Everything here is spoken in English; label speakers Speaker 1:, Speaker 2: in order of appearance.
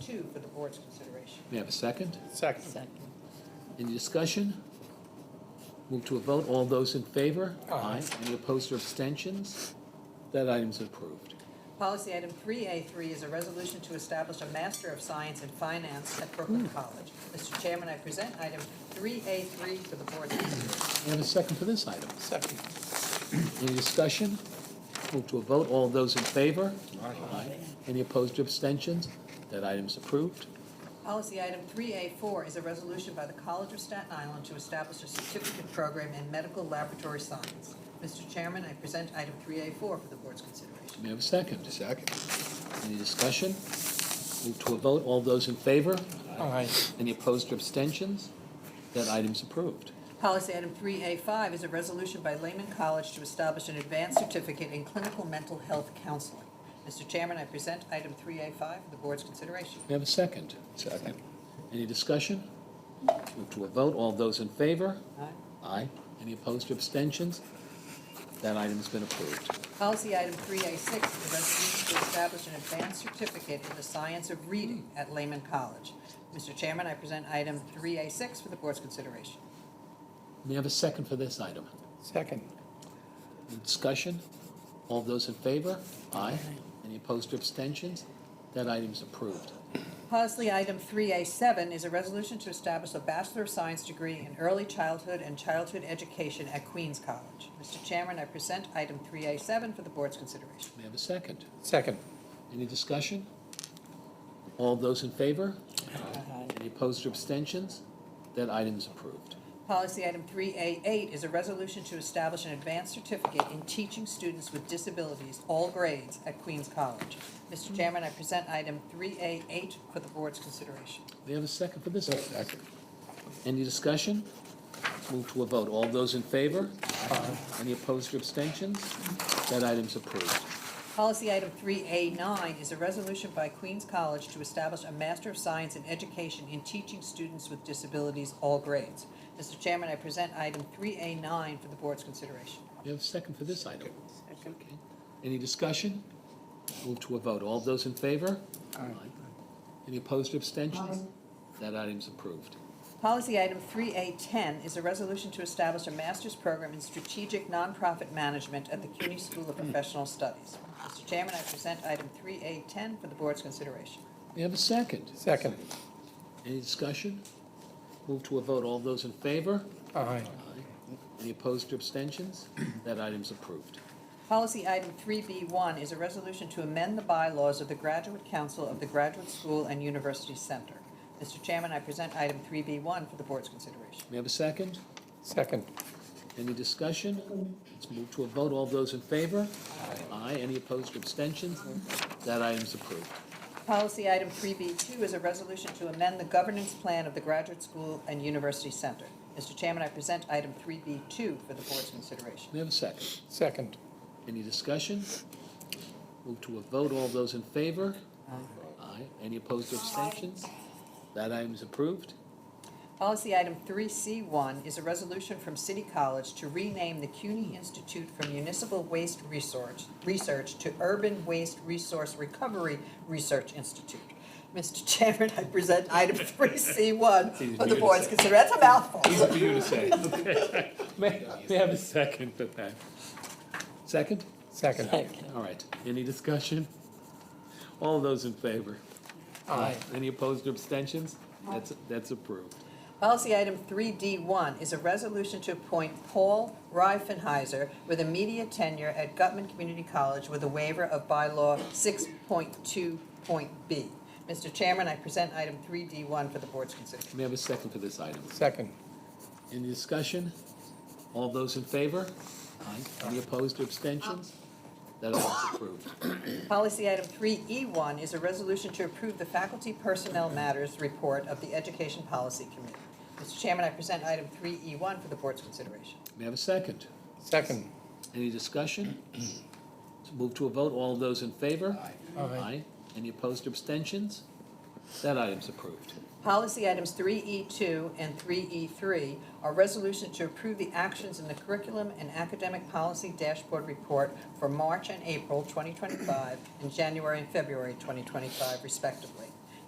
Speaker 1: Two for the board's consideration.
Speaker 2: May I have a second?
Speaker 3: Second.
Speaker 2: Any discussion? Move to a vote. All those in favor? Aye. Any opposed or abstentions? That item's approved.
Speaker 1: Policy item 3A3 is a resolution to establish a Master of Science in Finance at Brooklyn College. Mr. Chairman, I present item 3A3 for the board's consideration.
Speaker 2: May I have a second for this item?
Speaker 3: Second.
Speaker 2: Any discussion? Move to a vote. All those in favor? Aye. Any opposed or abstentions? That item's approved.
Speaker 1: Policy item 3A4 is a resolution by the College of Staten Island to establish a certificate program in medical laboratory science. Mr. Chairman, I present item 3A4 for the board's consideration.
Speaker 2: May I have a second?
Speaker 3: Second.
Speaker 2: Any discussion? Move to a vote. All those in favor?
Speaker 3: Aye.
Speaker 2: Any opposed or abstentions? That item's approved.
Speaker 1: Policy item 3A5 is a resolution by Lehman College to establish an advanced certificate in clinical mental health counseling. Mr. Chairman, I present item 3A5 for the board's consideration.
Speaker 2: May I have a second?
Speaker 3: Second.
Speaker 2: Any discussion? Move to a vote. All those in favor?
Speaker 1: Aye.
Speaker 2: Aye. Any opposed or abstentions? That item's been approved.
Speaker 1: Policy item 3A6 is a resolution to establish an advanced certificate in the science of reading at Lehman College. Mr. Chairman, I present item 3A6 for the board's consideration.
Speaker 2: May I have a second for this item?
Speaker 3: Second.
Speaker 2: Any Discussion? All those in favor? Aye. Any opposed or abstentions? That item's approved.
Speaker 1: Policy item 3A7 is a resolution to establish a Bachelor of Science degree in early childhood and childhood education at Queens College. Mr. Chairman, I present item 3A7 for the board's consideration.
Speaker 2: May I have a second?
Speaker 3: Second.
Speaker 2: Any discussion? All those in favor? Any opposed or abstentions? That item's approved.
Speaker 1: Policy item 3A8 is a resolution to establish an advanced certificate in teaching students with disabilities, all grades, at Queens College. Mr. Chairman, I present item 3A8 for the board's consideration.
Speaker 2: May I have a second for this? Second. Any discussion? Move to a vote. All those in favor? Aye. Any opposed or abstentions? That item's approved.
Speaker 1: Policy item 3A9 is a resolution by Queens College to establish a Master of Science in Education in teaching students with disabilities, all grades. Mr. Chairman, I present item 3A9 for the board's consideration.
Speaker 2: We have a second for this item. Okay. Any discussion? Move to a vote. All those in favor? Aye. Any opposed or abstentions? That item's approved.
Speaker 1: Policy item 3A10 is a resolution to establish a master's program in strategic nonprofit management at the CUNY School of Professional Studies. Mr. Chairman, I present item 3A10 for the board's consideration.
Speaker 2: We have a second.
Speaker 3: Second.
Speaker 2: Any discussion? Move to a vote. All those in favor?
Speaker 3: Aye.
Speaker 2: Any opposed or abstentions? That item's approved.
Speaker 1: Policy item 3B1 is a resolution to amend the bylaws of the Graduate Council of the Graduate School and University Center. Mr. Chairman, I present item 3B1 for the board's consideration.
Speaker 2: May I have a second?
Speaker 3: Second.
Speaker 2: Any discussion? Let's move to a vote. All those in favor? Aye. Any opposed or abstentions? That item's approved.
Speaker 1: Policy item 3B2 is a resolution to amend the governance plan of the Graduate School and University Center. Mr. Chairman, I present item 3B2 for the board's consideration.
Speaker 2: May I have a second?
Speaker 3: Second.
Speaker 2: Any discussion? Move to a vote. All those in favor? Aye. Any opposed or abstentions? That item is approved.
Speaker 1: Policy item 3C1 is a resolution from City College to rename the CUNY Institute for Municipal Waste Research, Research to Urban Waste Resource Recovery Research Institute. Mr. Chairman, I present item 3C1 for the board's consideration. That's a mouthful.
Speaker 2: May may I have a second for that? Second?
Speaker 3: Second.
Speaker 2: All right. Any discussion? All those in favor?
Speaker 3: Aye.
Speaker 2: Any opposed or abstentions? That's, that's approved.
Speaker 1: Policy item 3D1 is a resolution to appoint Paul Reifenheiser with immediate tenure at Gutman Community College with a waiver of bylaw 6.2.b. Mr. Chairman, I present item 3D1 for the board's consideration.
Speaker 2: May I have a second for this item?
Speaker 3: Second.
Speaker 2: Any discussion? All those in favor? Aye. Any opposed or abstentions? That item's approved.
Speaker 1: Policy item 3E1 is a resolution to approve the faculty personnel matters report of the Education Policy Committee. Mr. Chairman, I present item 3E1 for the board's consideration.
Speaker 2: May I have a second?
Speaker 3: Second.
Speaker 2: Any discussion? Let's Move to a vote. All those in favor?
Speaker 3: Aye. Aye.
Speaker 2: Any opposed or abstentions? That item's approved.
Speaker 1: Policy items 3E2 and 3E3 are resolution to approve the actions in the curriculum and academic policy dashboard report for March and April 2025 and January and February 2025 respectively.